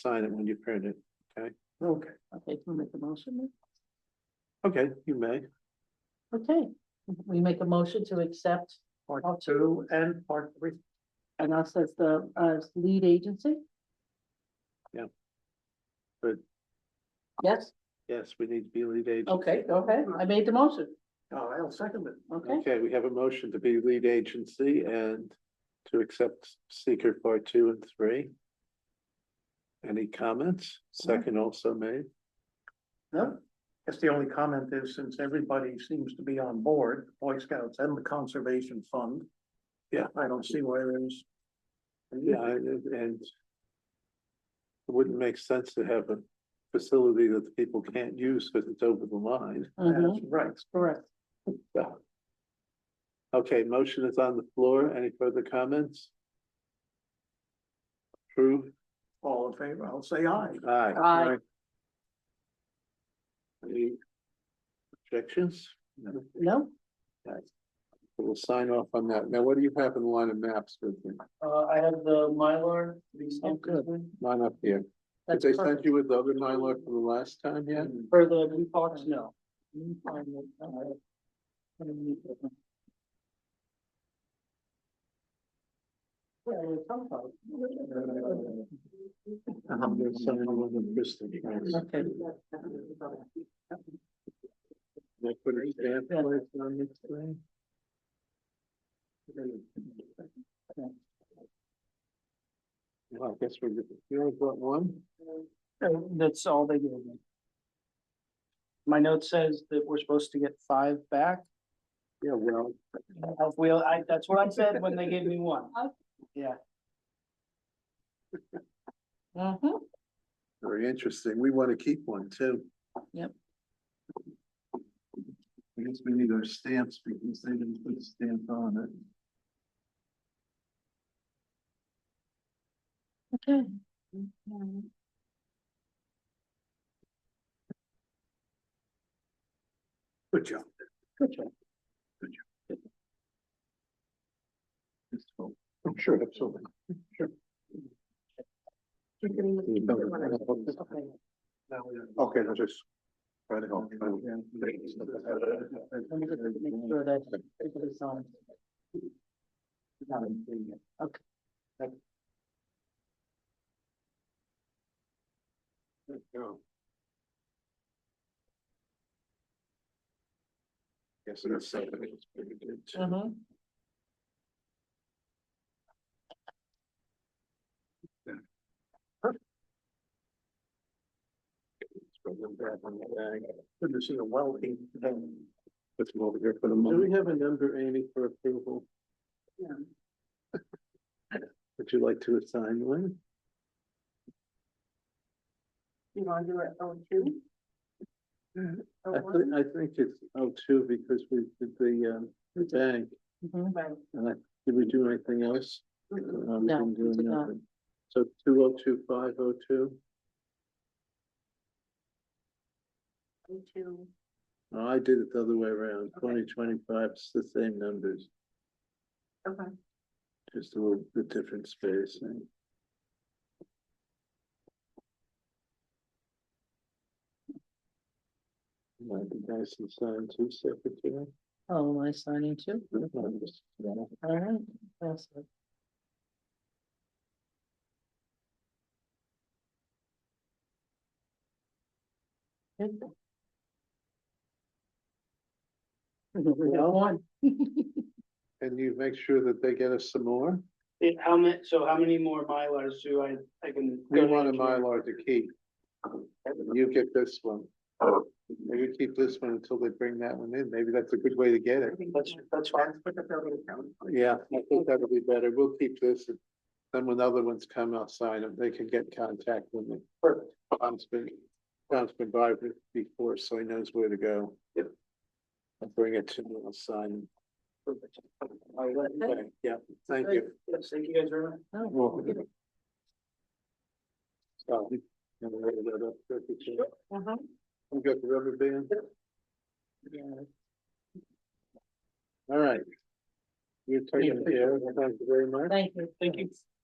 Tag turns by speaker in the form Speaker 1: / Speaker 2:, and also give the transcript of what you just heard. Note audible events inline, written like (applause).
Speaker 1: sign it when you print it.
Speaker 2: Okay,
Speaker 3: Okay, can we make a motion?
Speaker 1: Okay, you may.
Speaker 3: then? Okay, we make a motion to accept
Speaker 2: part
Speaker 3: I'll-
Speaker 2: two and part three.
Speaker 3: and us as the uh lead agency?
Speaker 1: Yeah. Good.
Speaker 3: Yes,
Speaker 1: Yes, we need to be lead agency.
Speaker 3: okay, go ahead. I made the motion.
Speaker 2: Oh, I'll second it.
Speaker 3: Okay,
Speaker 1: Okay, we have a motion to be lead agency and to accept seeker part two and three. Any comments? Second also made.
Speaker 2: No, guess the only comment is since everybody seems to be on board, Boy Scouts and the Conservation Fund.
Speaker 1: Yeah.
Speaker 2: I don't see why there's.
Speaker 1: Yeah, and and it wouldn't make sense to have a facility that the people can't use because it's over the line.
Speaker 3: mhm,
Speaker 2: That's right.
Speaker 3: correct.
Speaker 1: So. Okay, motion is on the floor. Any further comments? Approved?
Speaker 2: All in favor, I'll say aye.
Speaker 1: Aye.
Speaker 3: Aye.
Speaker 1: Any objections? No.
Speaker 3: No,
Speaker 1: We'll sign off on that. Now, what do you have in line of maps with you?
Speaker 4: Uh, I have the Mylar to be
Speaker 3: oh,
Speaker 4: stamped.
Speaker 3: good.
Speaker 1: Mine up here. Did
Speaker 3: That's
Speaker 1: they send
Speaker 3: perfect.
Speaker 1: you with the other Mylar from the last time yet?
Speaker 3: For the blue box, no. Let me find it. Uh, let me meet with them. Where it come from?
Speaker 1: I'm gonna sign the one in Bristol.
Speaker 3: Okay.
Speaker 1: They put a stamp place on this thing? Well, I guess we're, you only brought one?
Speaker 4: Uh, That's all they gave me. My note says that we're supposed to get five back.
Speaker 1: Yeah, well,
Speaker 4: Uh, Well, I, that's what I said when they gave me one.
Speaker 3: Mhm.
Speaker 1: very interesting. We want to keep one too.
Speaker 3: Yep.
Speaker 1: I guess we need our stamps because they didn't put a stamp on it.
Speaker 3: Okay.
Speaker 1: Good job.
Speaker 3: Good job.
Speaker 1: I'm Oh, sure, absolutely. Sure.
Speaker 3: Okay.
Speaker 1: Okay, that's just. Try to help.
Speaker 3: Let me just make sure that it um, is on. Okay.
Speaker 1: Yes, it is. It's pretty good, too.
Speaker 3: Mhm.
Speaker 1: Put them back on the bag.
Speaker 2: Good to see a wealthy. um,
Speaker 1: Let's move over here for the moment. Do we have a number, Amy, for approval?
Speaker 3: Yeah.
Speaker 1: Would you like to assign one?
Speaker 3: You want to do it on two?
Speaker 1: Mhm.
Speaker 3: Or
Speaker 1: I
Speaker 3: one?
Speaker 1: think, I think it's oh two because we did the um the bank
Speaker 3: Mhm. Right.
Speaker 1: and I, did we do anything else? No, we
Speaker 3: No,
Speaker 1: didn't do
Speaker 3: we did not.
Speaker 1: nothing. So two oh two, five oh two,
Speaker 3: Two.
Speaker 1: I did it the other way around, twenty twenty-five, it's the same numbers,
Speaker 3: Okay.
Speaker 1: just a little bit different spacing. Might be nice and sign two secretary.
Speaker 3: Oh, am I signing two? All right. That's it. Good. (laughs) We got
Speaker 1: Well-
Speaker 3: one.
Speaker 1: And you make sure that they get us some more?
Speaker 4: It- how many, so how many more Mylars do I, I can?
Speaker 1: We want a Mylar to keep. You get this one. Maybe keep this one until they bring that one in. Maybe that's a good way to get it.
Speaker 4: That's, that's fine.
Speaker 1: Yeah, I think that'll be better. We'll keep this. and Then when the other ones come, I'll sign them. They can get contact with me.
Speaker 4: Perfect.
Speaker 1: Tom's been, Tom's been by with- before, so he knows where to go.
Speaker 4: Yep.
Speaker 1: I'll bring it to him. I'll sign.
Speaker 4: Perfect. I'll let you-
Speaker 1: Okay, yeah, thank you.
Speaker 4: Yes, Thank you guys very much.
Speaker 3: Oh,
Speaker 1: Welcome. So, you wanna write that up, secretary?
Speaker 3: uh-huh.
Speaker 1: We got the rubber band?
Speaker 3: Yeah.
Speaker 1: All right. You're taking
Speaker 4: Yeah.
Speaker 1: care. Thank you very much.
Speaker 3: Thank you.
Speaker 4: Thank you.